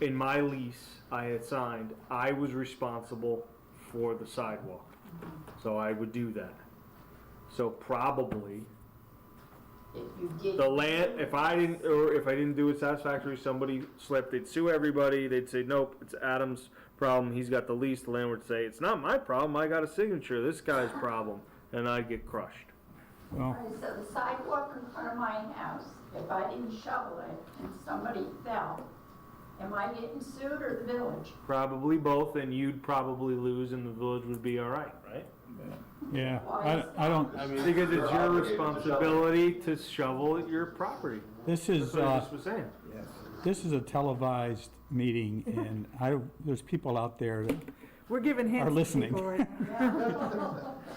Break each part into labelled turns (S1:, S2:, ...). S1: in my lease I had signed, I was responsible for the sidewalk. So I would do that. So probably,
S2: If you did.
S1: the land, if I didn't, or if I didn't do it satisfactory, somebody slipped, they'd sue everybody, they'd say, nope, it's Adam's problem, he's got the lease, the landlord would say, it's not my problem, I got a signature, this guy's problem, and I'd get crushed.
S3: Oh.
S2: All right, So the sidewalk in front of my house, if I didn't shovel it and somebody fell, am I getting sued or the village?
S1: Probably both, and you'd probably lose, and the village would be all right, right?
S4: Yeah,
S2: Why is
S4: I, I don't,
S2: that?
S1: Because it's
S5: You're
S1: your
S5: obligated to shovel.
S1: responsibility to shovel your property.
S4: this
S1: That's
S4: is,
S1: what I just
S4: uh,
S1: was saying.
S4: this is a televised meeting and I, there's people out there that
S6: We're giving hints.
S4: Are
S6: to
S4: listening.
S6: people right-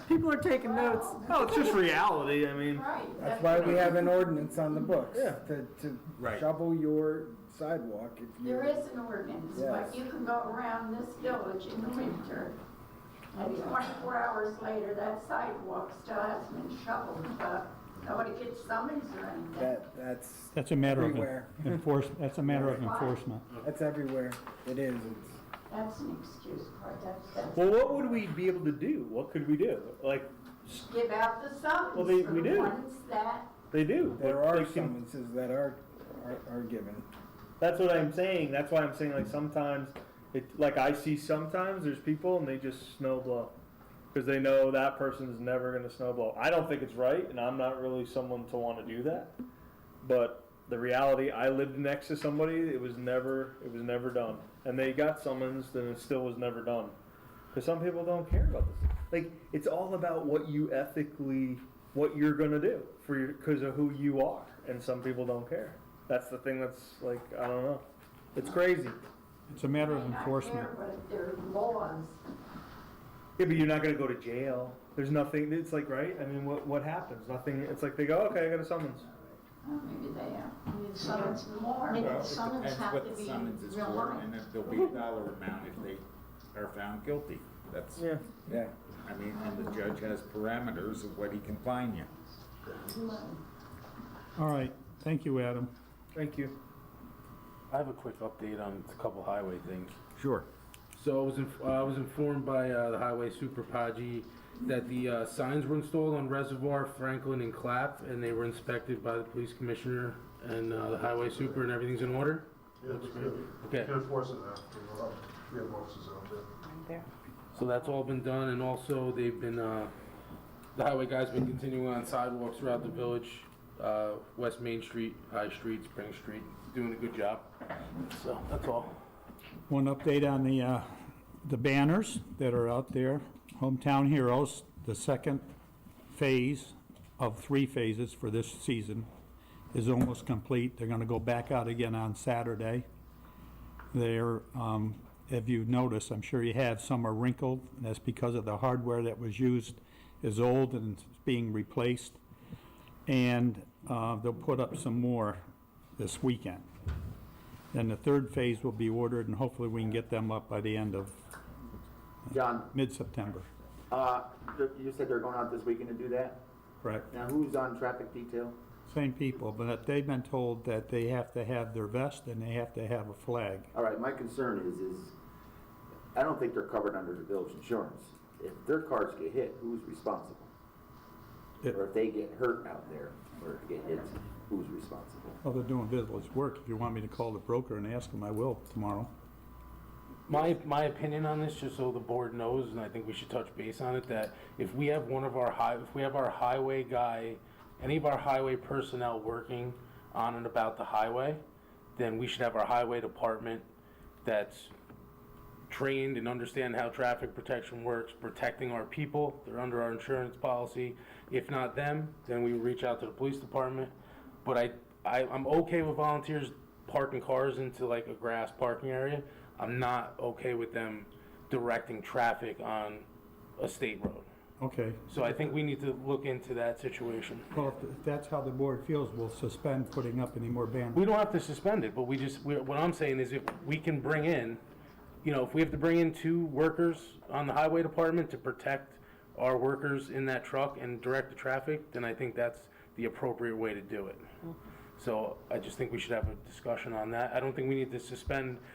S6: People are taking notes.
S1: No, it's just reality, I
S7: Mm.
S1: mean,
S2: Right.
S3: That's why we have an ordinance on the books.
S1: Yeah.
S3: To, to shovel your sidewalk if you.
S2: There is an ordinance, but
S3: Yes.
S2: you can go around this village in the winter, and 24 hours later, that sidewalk still hasn't been shoveled, but nobody gets summons or anything.
S3: That, that's,
S4: That's a matter of
S3: Everywhere.
S4: enforcement, that's a matter of
S2: Why?
S4: enforcement.
S3: that's everywhere. It is. It's-
S2: That's an excuse for it, that's, that's,
S7: Well, what would we be able to do? What could we do? Like
S2: give out the summons.
S7: Well, they-
S2: for
S7: we
S2: the
S7: do.
S2: ones that,
S7: they do.
S3: There
S7: Like,
S3: are
S7: they can-
S3: summonses that are, are, are given.
S7: That's what I'm saying. That's why I'm saying like sometimes, it like I see sometimes there's people and they just snow blow because they know that person's never going to snow blow. I don't think it's right, and I'm not really someone to want to do that. But the reality, I lived next to somebody. It was never, it was never done, and they got summons, and it still was never done. Because some people don't care about this. Like it's all about what you ethically, what you're gonna do for your, because of who you are, and some people don't care. That's the thing that's like I don't know. It's crazy. Yeah,
S4: It's a matter of
S2: may not care,
S4: enforcement.
S2: but they're laws.
S7: but you're not gonna go to jail. There's nothing. It's like right. I mean, what what happens? Nothing. It's like they go, okay, I got a summons.
S2: Well, Maybe they have summons more.
S8: Well,
S2: Maybe
S8: it
S2: summons
S8: depends
S2: have
S8: what
S2: to
S8: the
S2: be
S8: summons is
S2: real
S8: for, and
S2: life.
S8: if there'll be a dollar amount if they are found guilty. That's,
S7: Yeah.
S3: Yeah.
S8: I mean, and the judge has parameters of what he can fine you.
S4: All right, thank you, Adam.
S7: Thank you.
S9: I have a quick update on a couple highway things.
S8: Sure.
S9: So I was, inf- uh, I was informed by uh, the highway super Paggi that the uh, signs were installed on Reservoir, Franklin, and Clap, and they were inspected by the police commissioner and uh, the highway super, and everything's in order.
S5: Yeah, we can- we
S9: Okay.
S5: can enforce it now. You know, We have officers out there.
S9: So that's all been done, and also they've been, uh, the highway guys been continuing on sidewalks throughout the village, uh, West Main Street, High Street, Spring Street, doing a good job. So that's all.
S4: One update on the, uh, the banners that are out there. Hometown Heroes, the second phase of three phases for this season is almost complete. They're gonna go back out again on Saturday. They're, um, if you notice, I'm sure you have, some are wrinkled, and that's because of the hardware that was used is old and it's being replaced. And, uh, they'll put up some more this weekend. Then the third phase will be ordered, and hopefully we can get them up by the end of
S10: John,
S4: mid-September.
S10: uh, th- you said they're going out this weekend to do that?
S4: Correct.
S10: Now, who's on traffic detail?
S4: Same people, but they've been told that they have to have their vest and they have to have a flag.
S10: All right, my concern is, is I don't think they're covered under the village insurance. If their cars get hit, who's responsible?
S4: It-
S10: Or if they get hurt out there or get hit, who's responsible?
S4: Well, they're doing village work. If you want me to call the broker and ask them, I will tomorrow.
S9: My, my opinion on this, just so the board knows, and I think we should touch base on it, that if we have one of our high, if we have our highway guy, any of our highway personnel working on and about the highway, then we should have our highway department that's trained and understand how traffic protection works, protecting our people, they're under our insurance policy. If not them, then we reach out to the police department. But I, I, I'm okay with volunteers parking cars into like a grass parking area. I'm not okay with them directing traffic on a state road.
S4: Okay.
S9: So I think we need to look into that situation.
S4: Well, if- if that's how the board feels, we'll suspend putting up any more banners.
S9: We don't have to suspend it, but we just, we- what I'm saying is if we can bring in, you know, if we have to bring in two workers on the highway department to protect our workers in that truck and direct the traffic, then I think that's the appropriate way to do it. So I just think we should have a discussion on that. I don't think we need to suspend